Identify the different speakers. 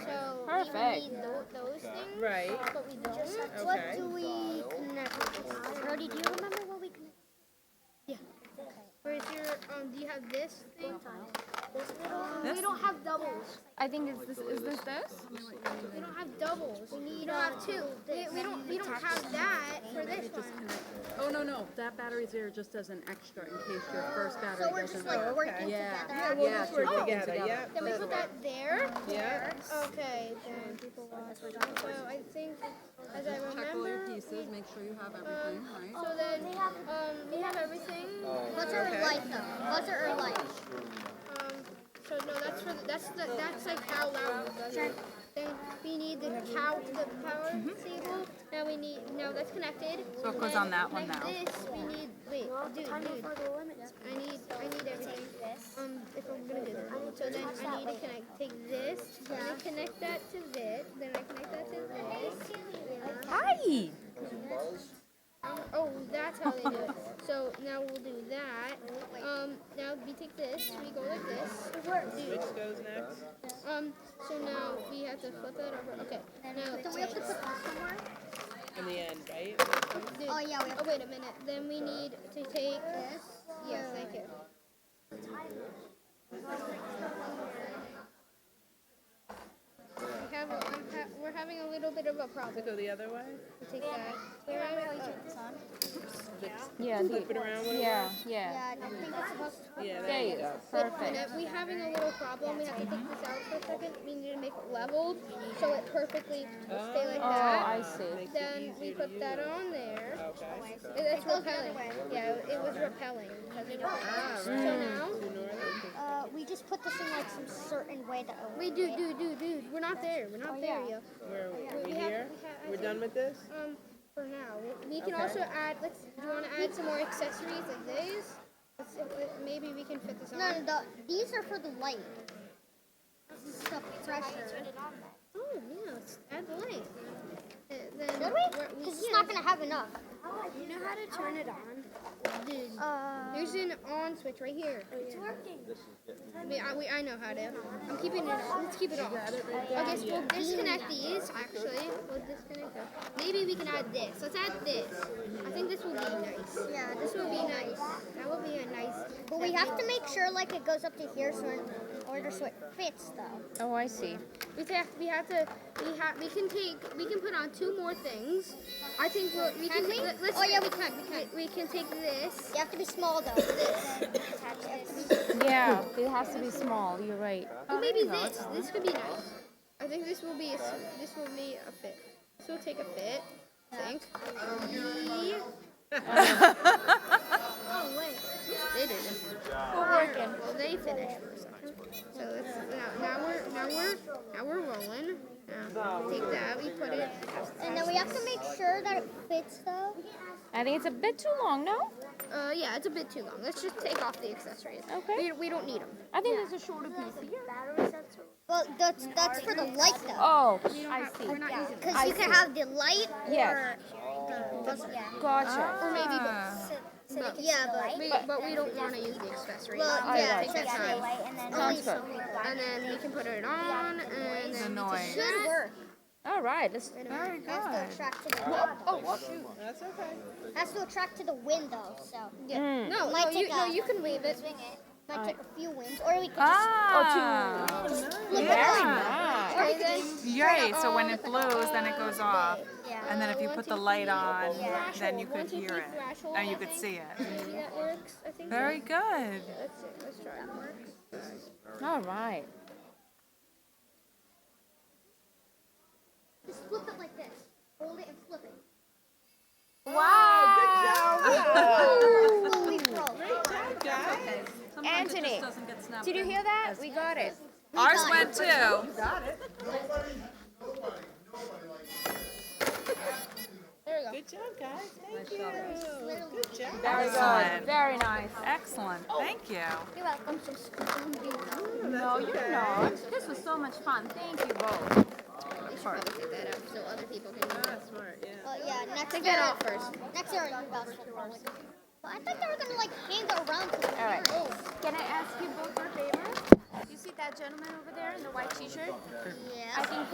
Speaker 1: Perfect.
Speaker 2: we need tho- those things,
Speaker 1: Right.
Speaker 2: but we don't.
Speaker 1: Okay.
Speaker 3: What do we connect with?
Speaker 2: Brody, do you remember what we connected?
Speaker 3: Where's your, um, do you have this thing?
Speaker 2: This little.
Speaker 1: This?
Speaker 2: We don't have doubles.
Speaker 1: I think is this is this this?
Speaker 3: We don't have doubles.
Speaker 2: We need.
Speaker 3: We don't have two. We, we don't, we don't have that for this one.
Speaker 4: Oh, no, no, that battery's there just as an extra in case your first battery
Speaker 2: So we're just
Speaker 4: doesn't.
Speaker 2: like working
Speaker 4: Yeah.
Speaker 2: together.
Speaker 3: we'll
Speaker 4: Yeah,
Speaker 3: just
Speaker 4: so we're
Speaker 3: work
Speaker 4: working
Speaker 3: together.
Speaker 4: together.
Speaker 3: Then we put that there.
Speaker 1: Yeah.
Speaker 3: Okay, then. So I think, as I
Speaker 4: Check all your
Speaker 3: remember,
Speaker 4: pieces, make sure you
Speaker 2: Uh,
Speaker 4: have everything,
Speaker 2: oh.
Speaker 4: right?
Speaker 3: so then, um, we have everything.
Speaker 2: What's our light though? What's our light?
Speaker 3: Um, so no, that's for the, that's the, that's like how loud it does it. Then we need the cow, the power
Speaker 2: Mm-hmm.
Speaker 3: cable. Now we need, now that's connected.
Speaker 1: So it goes
Speaker 3: Then
Speaker 1: on that one
Speaker 3: connect
Speaker 1: now.
Speaker 3: This we need. Wait, dude, dude. I need, I need everything. Um, if I'm gonna do this. So then I need to connect, take this, and then connect that to this, then I connect that to this.
Speaker 1: Hi.
Speaker 3: Um, oh, that's how they do it. So now we'll do that. Um, now we take this, we go like this. Dude.
Speaker 5: Which goes next?
Speaker 3: Um, so now we have to flip it over. Okay. Now
Speaker 2: Do we have to put this somewhere?
Speaker 5: In the end, right?
Speaker 3: dude,
Speaker 2: Oh yeah, we have.
Speaker 3: Oh wait a minute. Then we need to take this. Yes, thank you. We have a, I'm ha- we're having a little bit of a problem.
Speaker 5: Does it go the other way?
Speaker 3: We take that. We're having, uh,
Speaker 1: Yeah.
Speaker 5: Flip it around one
Speaker 1: Yeah. Yeah.
Speaker 2: Yeah, I think it's supposed to.
Speaker 5: Yeah,
Speaker 1: There you go. Perfect.
Speaker 3: we're having a little problem. We have to take this out for a second. We need to make it leveled so it perfectly will stay like
Speaker 1: Oh, I
Speaker 3: that.
Speaker 1: see.
Speaker 3: Then we put that on there.
Speaker 5: Okay.
Speaker 3: It- It's repelling. Yeah, it was repelling because it was.
Speaker 2: Ah,
Speaker 3: So now
Speaker 2: Uh, we just put this in like some certain way that.
Speaker 3: we do, do, do, dude. We're not there. We're
Speaker 2: Oh,
Speaker 3: not there, yo.
Speaker 5: Where are we?
Speaker 3: We
Speaker 5: We
Speaker 3: have-
Speaker 5: here?
Speaker 3: we have- I
Speaker 5: We're
Speaker 3: think-
Speaker 5: done with this?
Speaker 3: Um, for now, We- we can also add. Let's. Do you want to add some more accessories like these? Let's, let- maybe we can fit this on.
Speaker 2: No, no, the, these are for the light. This is stuff fresher.
Speaker 3: Oh yeah, let's add the light. Uh, Then
Speaker 2: Did
Speaker 3: we're-
Speaker 2: we? Because it's not gonna have enough.
Speaker 6: You know how to turn it on?
Speaker 3: dude,
Speaker 2: Uh,
Speaker 3: there's an on switch right here.
Speaker 6: It's working.
Speaker 3: I mean, I, we, I know how to. I'm keeping it on. Let's keep it on. Okay, so we'll disconnect these, actually. We'll disconnect them. Maybe we can add this. Let's add this. I think this will be nice.
Speaker 2: yeah,
Speaker 3: This will be nice. That will be a nice.
Speaker 2: but we have to make sure like it goes up to here, so in order so it fits though.
Speaker 1: Oh, I see.
Speaker 3: We have, we have to, we have, we can take, we can put on two more things. I think we'll, we can,
Speaker 2: Can we?
Speaker 3: let- let's,
Speaker 2: Oh, yeah,
Speaker 3: we can, we can. We can take this.
Speaker 2: You have to be small though. This. You have to be-
Speaker 1: Yeah. It has to be small. You're right.
Speaker 3: Well, Uh, maybe this. This could be nice. I think this will be a, s- this will be a fit. This will take a fit. I think. Yeah.
Speaker 2: Oh wait.
Speaker 3: They did.
Speaker 1: We're working.
Speaker 3: Well, they finished for a second. So let's, now, now we're now we're now we're rolling. Now, take that. We put it.
Speaker 2: And then we have to make sure that it fits though.
Speaker 1: I think it's a bit too long. No.
Speaker 3: Uh, yeah, it's a bit too long. Let's just take off the accessories.
Speaker 1: Okay.
Speaker 3: We, we don't need them.
Speaker 1: I think there's a shorter piece here.
Speaker 2: Well, that's that's for the light though.
Speaker 1: Oh, I see.
Speaker 3: We're not using them.
Speaker 2: Because you can have the light
Speaker 1: Yes.
Speaker 2: or the yeah.
Speaker 1: Gotcha.
Speaker 3: Or maybe both.
Speaker 2: But, yeah, but
Speaker 3: We, but we don't want to use the accessories.
Speaker 2: well,
Speaker 3: We
Speaker 2: yeah,
Speaker 3: take that time.
Speaker 1: Sounds
Speaker 2: exactly.
Speaker 1: good.
Speaker 3: And then we can put it on. And then we
Speaker 1: Annoying.
Speaker 3: take that.
Speaker 1: All right. Let's.
Speaker 3: Wait a
Speaker 1: Very
Speaker 3: minute.
Speaker 1: good.
Speaker 2: Has to attract to the
Speaker 1: Oh, shoot.
Speaker 5: That's okay.
Speaker 2: has to attract to the window. So
Speaker 3: Yeah. No, no,
Speaker 2: Might
Speaker 3: you,
Speaker 2: take
Speaker 3: no,
Speaker 2: a-
Speaker 3: you can wave it.
Speaker 2: might take a few wins, or we could just
Speaker 1: Ah.
Speaker 2: flip
Speaker 1: Very
Speaker 2: it on.
Speaker 1: nice.
Speaker 3: Okay, then.
Speaker 7: Yay, so when it blows, then it goes off.
Speaker 2: Yeah.
Speaker 7: And then if you
Speaker 3: One,
Speaker 7: put
Speaker 3: two,
Speaker 7: the light
Speaker 3: three.
Speaker 7: on,
Speaker 3: Flash
Speaker 7: then
Speaker 3: hole.
Speaker 7: you
Speaker 3: One,
Speaker 7: could
Speaker 3: two,
Speaker 7: hear
Speaker 3: three,
Speaker 7: it.
Speaker 3: flash hole,
Speaker 7: And
Speaker 3: I
Speaker 7: you could
Speaker 3: think.
Speaker 7: see it.
Speaker 3: Maybe that works. I think.
Speaker 7: Very good.
Speaker 3: Let's see. Let's try. That works.
Speaker 1: All right.
Speaker 2: Just flip it like this. Hold it and flip it. Fully roll.
Speaker 5: Guys,
Speaker 4: Sometimes it
Speaker 1: Anthony,
Speaker 4: just doesn't get snapped
Speaker 1: Did you
Speaker 4: in.
Speaker 1: hear that? We got it.
Speaker 7: Ours went too.
Speaker 5: good job, guys. Thank you. Good job.
Speaker 1: Very
Speaker 7: Excellent.
Speaker 1: good. Very nice.
Speaker 7: Excellent, thank you.
Speaker 2: You're welcome. Just
Speaker 5: Oh,
Speaker 1: No, you're not. This was so much fun. Thank you both.
Speaker 3: We should probably take that out so other people can.
Speaker 5: Ah, smart, yeah.
Speaker 2: Well, yeah, next
Speaker 3: Take
Speaker 2: year, um,
Speaker 3: that off first.
Speaker 2: next year our bells will probably. But I thought they were gonna like hand it around to the
Speaker 1: All right.
Speaker 2: parents.
Speaker 6: Can I ask you both a favor? You see that gentleman over there in the white t-shirt?
Speaker 2: Yeah.
Speaker 6: I think